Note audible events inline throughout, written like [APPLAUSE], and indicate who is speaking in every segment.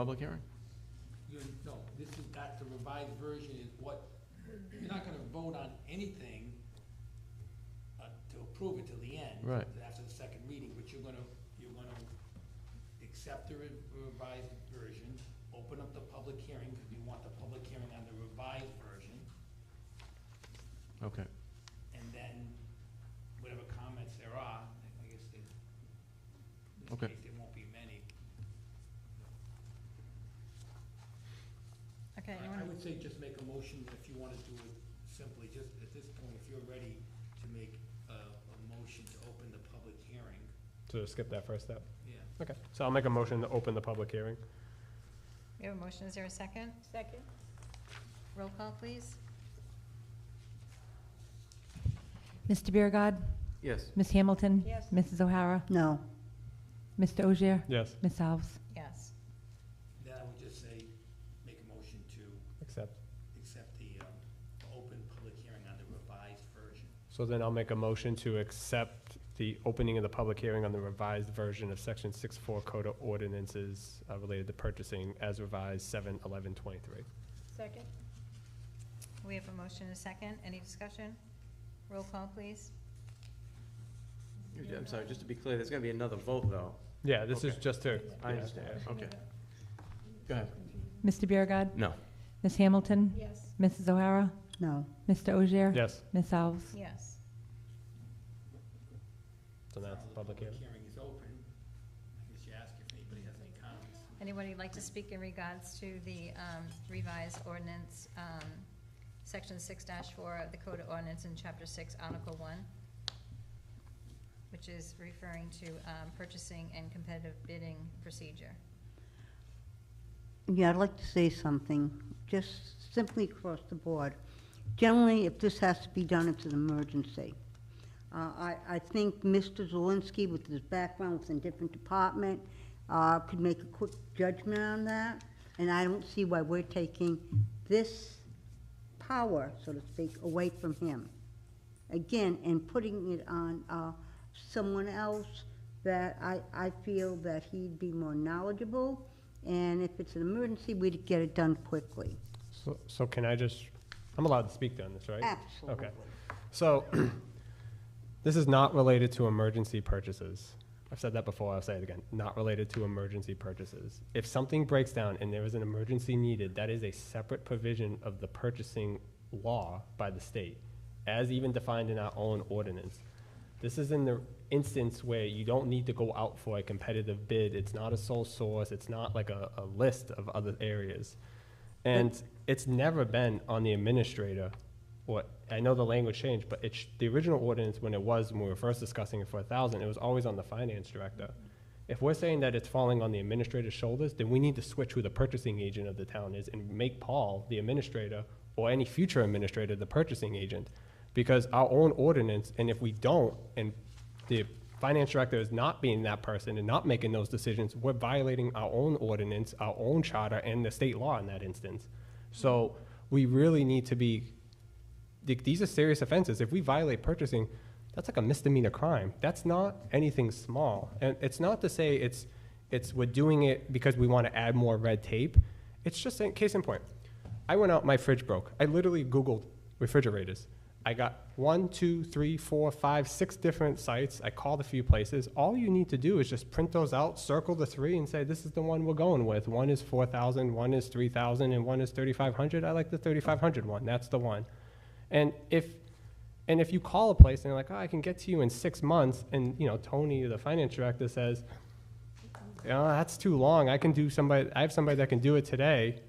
Speaker 1: Public hearing?
Speaker 2: You're, no, this is, not the revised version is what, you're not gonna vote on anything uh, to approve it till the end.
Speaker 1: Right.
Speaker 2: After the second reading, but you're gonna, you're gonna accept the re- revised version, open up the public hearing, because you want the public hearing on the revised version,
Speaker 1: Okay.
Speaker 2: and then whatever comments there are, I guess they, in
Speaker 1: Okay.
Speaker 2: this case, there won't be many.
Speaker 3: Okay, you
Speaker 2: I I
Speaker 3: wanna,
Speaker 2: would say just make a motion if you wanna do it simply, just at this point, if you're ready to make a, a motion to open the public hearing,
Speaker 4: So skip that first step.
Speaker 2: yeah.
Speaker 4: Okay, so I'll make a motion to open the public hearing.
Speaker 3: we have a motion, is there a second? Second. Roll call, please.
Speaker 5: Mr. Biragad.
Speaker 1: Yes.
Speaker 5: Ms. Hamilton.
Speaker 3: Yes.
Speaker 5: Mrs. O'Hara.
Speaker 6: No,
Speaker 5: Mr. Ogier.
Speaker 4: Yes,
Speaker 5: Ms. Alves.
Speaker 3: Yes.
Speaker 2: Then I would just say, make a motion to
Speaker 4: accept.
Speaker 2: accept the, um, open public hearing on the revised version.
Speaker 4: So then I'll make a motion to accept the opening of the public hearing on the revised version of section six four code of ordinances uh, related to purchasing as revised seven eleven twenty-three.
Speaker 3: Second. We have a motion, and a second, any discussion? Roll call, please.
Speaker 7: I'm sorry, just to be clear, there's gonna be another vote, though.
Speaker 4: Yeah, this is
Speaker 1: Okay.
Speaker 4: just to.
Speaker 7: I
Speaker 4: yeah,
Speaker 7: understand.
Speaker 1: Okay. Go ahead.
Speaker 5: Mr. Biragad.
Speaker 7: No.
Speaker 5: Ms. Hamilton.
Speaker 3: Yes.
Speaker 5: Mrs. O'Hara.
Speaker 6: no,
Speaker 5: Mr. Ogier.
Speaker 4: yeah. Yes,
Speaker 5: Ms. Alves.
Speaker 3: Yes.
Speaker 4: so now it's the public hearing.
Speaker 2: is open, I guess you ask if anybody has any comments.
Speaker 3: Anybody like to speak in regards to the um, revised ordinance, um, section six four of the Code of Ordinance in chapter six, article one, which is referring to um, purchasing and competitive bidding procedure.
Speaker 6: yeah, I'd like to say something, just simply across the board. Generally, if this has to be done, it's an emergency. Uh, I, I think Mr. Zelinski, with his background within different department, uh, could make a quick judgment on that, and I don't see why we're taking this power, so to speak, away from him. Again, and putting it on uh, someone else that I, I feel that he'd be more knowledgeable, and if it's an emergency, we'd get it done quickly.
Speaker 4: So, so can I just, I'm allowed to speak on this, right?
Speaker 6: Absolutely.
Speaker 4: So, [CLEARS THROAT] this is not related to emergency purchases. I've said that before, I'll say it again, not related to emergency purchases. If something breaks down and there is an emergency needed, that is a separate provision of the purchasing law by the state, as even defined in our own ordinance. This is in the instance where you don't need to go out for a competitive bid, it's not a sole source, it's not like a, a list of other areas. And it's never been on the administrator what, I know the language changed, but it's, the original ordinance, when it was, when we were first discussing it for a thousand, it was always on the finance director. If we're saying that it's falling on the administrator's shoulders, then we need to switch who the purchasing agent of the town is and make Paul the administrator or any future administrator the purchasing agent. Because our own ordinance, and if we don't, and the finance director is not being that person and not making those decisions, we're violating our own ordinance, our own charter, and the state law in that instance. So we really need to be th- these are serious offenses. If we violate purchasing, that's like a misdemeanor crime. That's not anything small. And it's not to say it's, it's, we're doing it because we want to add more red tape. It's just, a case in point, I went out, my fridge broke. I literally Googled refrigerators. I got one, two, three, four, five, six different sites. I called a few places. All you need to do is just print those out, circle the three, and say, this is the one we're going with. One is 4,000, one is 3,000, and one is 3,500. I like the 3,500 one. That's the one. And if and if you call a place and they're like, oh, I can get to you in six months, and you know Tony, the finance director, says, oh, that's too long. I can do somebody. I have somebody that can do it today.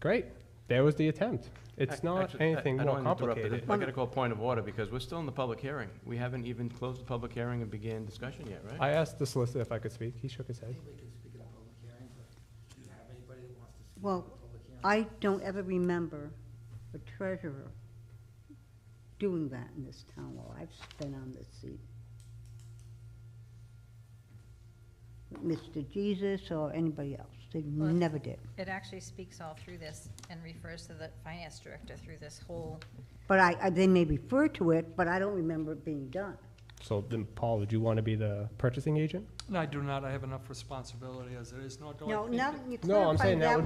Speaker 4: Great. There was the attempt. It's
Speaker 1: I-
Speaker 4: not
Speaker 1: actually, I-
Speaker 4: anything
Speaker 1: I don't
Speaker 4: more
Speaker 1: wanna interrupt, but
Speaker 4: complicated.
Speaker 1: I gotta call point of order, because we're still in the public hearing. We haven't even closed the public hearing and began discussion yet, right?
Speaker 4: I asked the solicitor if I could speak. He shook his head.
Speaker 2: Anybody can speak at a public hearing, but do you have anybody that wants to speak
Speaker 6: Well,
Speaker 2: at a public hearing?
Speaker 6: I don't ever remember a treasurer doing that in this town while I've been on this seat. Mr. Jesus or anybody else, they
Speaker 3: Well, it's-
Speaker 6: never did.
Speaker 3: It actually speaks all through this and refers to the finance director through this whole,
Speaker 6: But I, I, they may refer to it, but I don't remember it being done.
Speaker 4: So then, Paul, would you want to be the purchasing agent?
Speaker 8: No, I do not, I have enough responsibility as it is, nor do I
Speaker 6: No,
Speaker 8: think
Speaker 6: now
Speaker 8: that-
Speaker 6: that you
Speaker 4: No, I'm
Speaker 6: clarified
Speaker 4: saying that
Speaker 6: that
Speaker 4: would